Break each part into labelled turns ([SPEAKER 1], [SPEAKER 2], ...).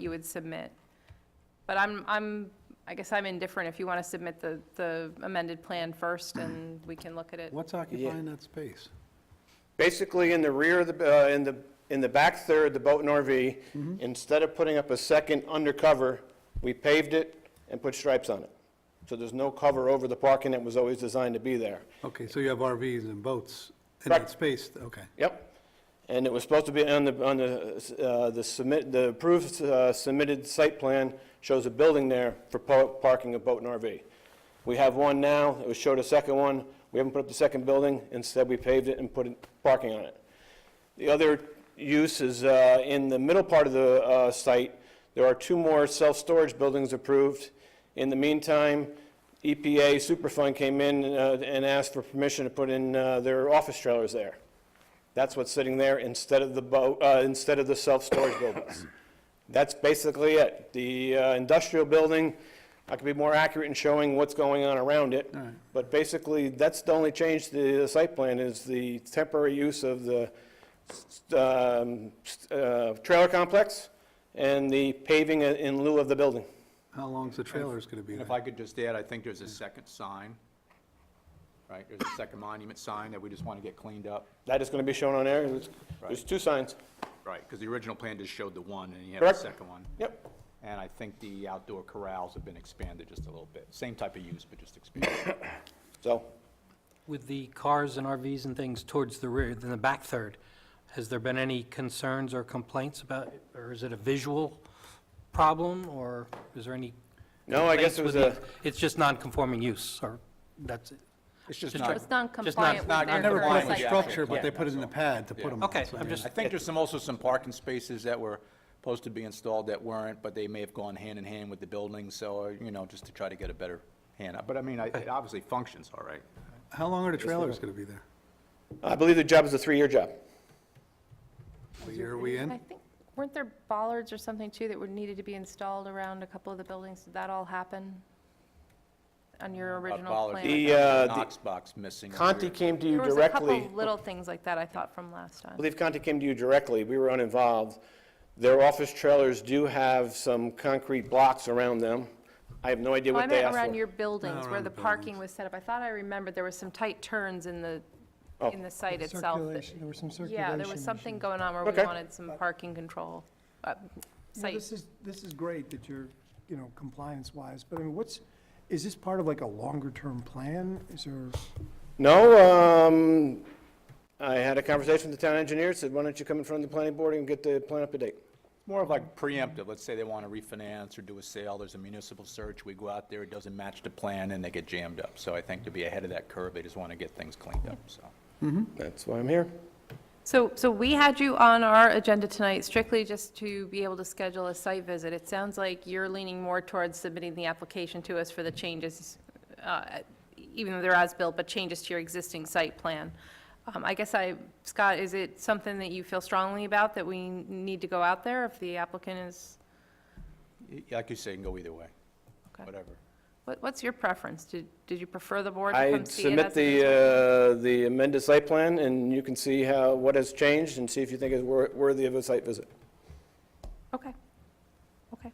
[SPEAKER 1] you would submit. But I'm, I'm, I guess I'm indifferent if you want to submit the, the amended plan first and we can look at it.
[SPEAKER 2] What's occupying that space?
[SPEAKER 3] Basically, in the rear of the, uh, in the, in the back third, the boat and RV, instead of putting up a second undercover, we paved it and put stripes on it. So there's no cover over the parking that was always designed to be there.
[SPEAKER 2] Okay, so you have RVs and boats in that
[SPEAKER 3] Correct.
[SPEAKER 2] space, okay.
[SPEAKER 3] Yep. And it was supposed to be on the, on the, uh, the submit, the approved uh, submitted site plan shows a building there for po- parking a boat and RV. We have one now, it was showed a second one, we haven't put up the second building, instead we paved it and put in- parking on it. The other use is uh, in the middle part of the uh, site, there are two more self-storage buildings approved. In the meantime, EPA Superfund came in uh, and asked for permission to put in uh, their office trailers there. That's what's sitting there instead of the boat, uh, instead of the self-storage buildings. That's basically it. The uh, industrial building, I could be more accurate in showing what's going on around it. But basically, that's the only change to the site plan is the temporary use of the, um, uh, trailer complex and the paving in lieu of the building.
[SPEAKER 2] How long's the trailers gonna be
[SPEAKER 4] And
[SPEAKER 2] there?
[SPEAKER 4] if I could just add, I think there's a second sign, right? There's a second monument sign that we just want to get cleaned up.
[SPEAKER 3] That is going to be shown on there. There's- There's two signs.
[SPEAKER 4] Right, because the original plan just showed the one, and you have a
[SPEAKER 3] Correct.
[SPEAKER 4] second one.
[SPEAKER 3] Yep.
[SPEAKER 4] And I think the outdoor corrals have been expanded just a little bit. Same type of use, but just expanded.
[SPEAKER 3] So,
[SPEAKER 5] With the cars and RVs and things towards the rear, then the back third, has there been any concerns or complaints about, or is it a visual problem, or is there any?
[SPEAKER 3] no, I guess it was
[SPEAKER 5] complaints
[SPEAKER 3] a,
[SPEAKER 5] with the- It's just non-conforming use, or that's it?
[SPEAKER 4] It's just
[SPEAKER 5] Just
[SPEAKER 4] not,
[SPEAKER 1] It's not compliant
[SPEAKER 5] Just not-
[SPEAKER 1] with
[SPEAKER 4] not-
[SPEAKER 1] their
[SPEAKER 4] I
[SPEAKER 2] Never put
[SPEAKER 1] current
[SPEAKER 2] up
[SPEAKER 4] Compliant
[SPEAKER 2] a
[SPEAKER 4] with
[SPEAKER 1] site
[SPEAKER 4] the
[SPEAKER 1] plan.
[SPEAKER 2] structure, but they put it in the pad to put them on.
[SPEAKER 5] Okay,
[SPEAKER 2] so
[SPEAKER 5] I'm
[SPEAKER 2] yeah.
[SPEAKER 5] just,
[SPEAKER 4] I think there's some, also some parking spaces that were supposed to be installed that weren't, but they may have gone hand in hand with the building, so, you know, just to try to get a better hand. But I mean, I- it obviously functions all right.
[SPEAKER 2] How long are the trailers gonna be there?
[SPEAKER 3] I believe the job is a three-year job.
[SPEAKER 2] A year are we
[SPEAKER 1] I
[SPEAKER 2] in?
[SPEAKER 1] think, weren't there bollards or something too that were needed to be installed around a couple of the buildings? Did that all happen on your original
[SPEAKER 4] bollards.
[SPEAKER 1] plan?
[SPEAKER 3] The,
[SPEAKER 1] There
[SPEAKER 3] uh, the-
[SPEAKER 4] Knox box missing. in the
[SPEAKER 3] Conti
[SPEAKER 4] rear.
[SPEAKER 3] came to you
[SPEAKER 1] was a
[SPEAKER 3] directly.
[SPEAKER 1] couple little things like that I thought from last
[SPEAKER 3] I
[SPEAKER 1] time.
[SPEAKER 3] believe Conti came to you directly, we were uninvolved. Their office trailers do have some concrete blocks around them. I have no idea
[SPEAKER 1] Oh, I
[SPEAKER 3] what they
[SPEAKER 1] meant
[SPEAKER 3] asked
[SPEAKER 1] around
[SPEAKER 3] for.
[SPEAKER 1] your buildings, where
[SPEAKER 2] around
[SPEAKER 1] the
[SPEAKER 2] the
[SPEAKER 1] parking was set up. I thought I remembered there was some tight turns in the, in the site itself. that-
[SPEAKER 6] Circulation, there was some circulation.
[SPEAKER 1] Yeah, there was something
[SPEAKER 6] issues.
[SPEAKER 1] going on where we
[SPEAKER 3] Okay.
[SPEAKER 1] wanted some parking control, uh,
[SPEAKER 6] You know,
[SPEAKER 1] site
[SPEAKER 6] This is, this is great that you're, you know, compliance-wise, but I mean, what's, is this part of like a longer-term plan? Is there,
[SPEAKER 3] No, um, I had a conversation with the town engineer, said, why don't you come in front of the planning board and get the plan up to date?
[SPEAKER 4] More of like preemptive, let's say they want to refinance or do a sale, there's a municipal search, we go out there, it doesn't match the plan, and they get jammed up. So I think to be ahead of that curve, they just want to get things cleaned up, so.
[SPEAKER 3] That's why I'm here.
[SPEAKER 1] So, so we had you on our agenda tonight strictly just to be able to schedule a site visit. It sounds like you're leaning more towards submitting the application to us for the changes, uh, even though they're as-built, but changes to your existing site plan. Um, I guess I, Scott, is it something that you feel strongly about, that we need to go out there if the applicant is,
[SPEAKER 4] y- Like you say, it can go either way,
[SPEAKER 1] Okay.
[SPEAKER 4] whatever.
[SPEAKER 1] what- what's your preference? Did, did you prefer the board to
[SPEAKER 3] I
[SPEAKER 1] come see it
[SPEAKER 3] submit
[SPEAKER 1] as it
[SPEAKER 3] the,
[SPEAKER 1] is?
[SPEAKER 3] uh, the amended site plan, and you can see how, what has changed, and see if you think it's wor- worthy of a site visit.
[SPEAKER 1] Okay, okay.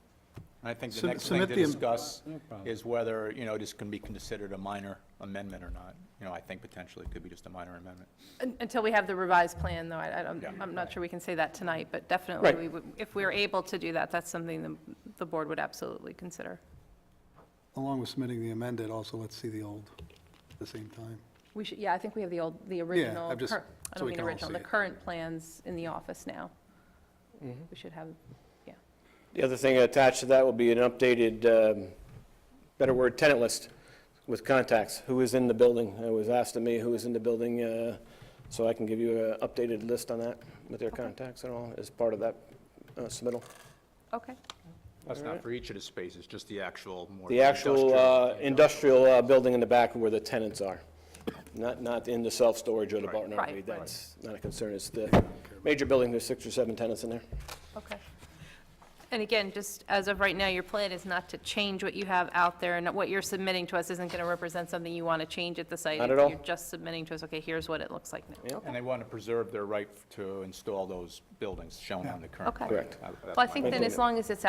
[SPEAKER 4] And I think the
[SPEAKER 2] Sub-
[SPEAKER 4] next thing
[SPEAKER 2] submit
[SPEAKER 4] to
[SPEAKER 2] the am-
[SPEAKER 4] discuss is whether, you know, this can be considered a minor amendment or not. You know, I think potentially it could be just a minor amendment.
[SPEAKER 1] Un- Until we have the revised plan, though, I, I don't,
[SPEAKER 4] Yeah.
[SPEAKER 1] I'm not sure we can say that tonight, but definitely,
[SPEAKER 3] Right.
[SPEAKER 1] we would- if we were able to do that, that's something the, the board would absolutely consider.
[SPEAKER 2] Along with submitting the amended, also let's see the old at the same time.
[SPEAKER 1] We should, yeah, I think we have the old, the original,
[SPEAKER 2] I've just-
[SPEAKER 1] cur- I
[SPEAKER 2] so
[SPEAKER 1] don't
[SPEAKER 2] we
[SPEAKER 1] mean
[SPEAKER 2] can all
[SPEAKER 1] original,
[SPEAKER 2] see
[SPEAKER 1] the
[SPEAKER 2] it. Mm-hmm.
[SPEAKER 1] current plans in the office now. We should have, yeah.
[SPEAKER 3] The other thing attached to that will be an updated, um, better word, tenant list with contacts, who is in the building. It was asked of me who is in the building, uh, so I can give you an updated list on that with their contacts and all as part of that uh, submittal.
[SPEAKER 1] Okay,
[SPEAKER 4] That's not for each of the spaces, just the actual more.
[SPEAKER 3] The actual uh, industrial
[SPEAKER 4] industrial-
[SPEAKER 3] uh, building in the back where the tenants are, not, not in the self-storage or the barn
[SPEAKER 1] Right, right.
[SPEAKER 3] RV. That's not a concern. It's the major building, there's six or seven tenants in there.
[SPEAKER 1] okay. And again, just as of right now, your plan is not to change what you have out there, and what you're submitting to us isn't going to represent something you want to change at the site.
[SPEAKER 3] Not at all.
[SPEAKER 1] You're just submitting to us, okay, here's what it looks like now.
[SPEAKER 3] Yeah.
[SPEAKER 4] And they want to preserve their right to install those buildings shown on the current
[SPEAKER 1] Okay.
[SPEAKER 4] plan.
[SPEAKER 1] Correct.
[SPEAKER 4] I- that's
[SPEAKER 1] Well, I
[SPEAKER 4] my
[SPEAKER 1] think then as long as it's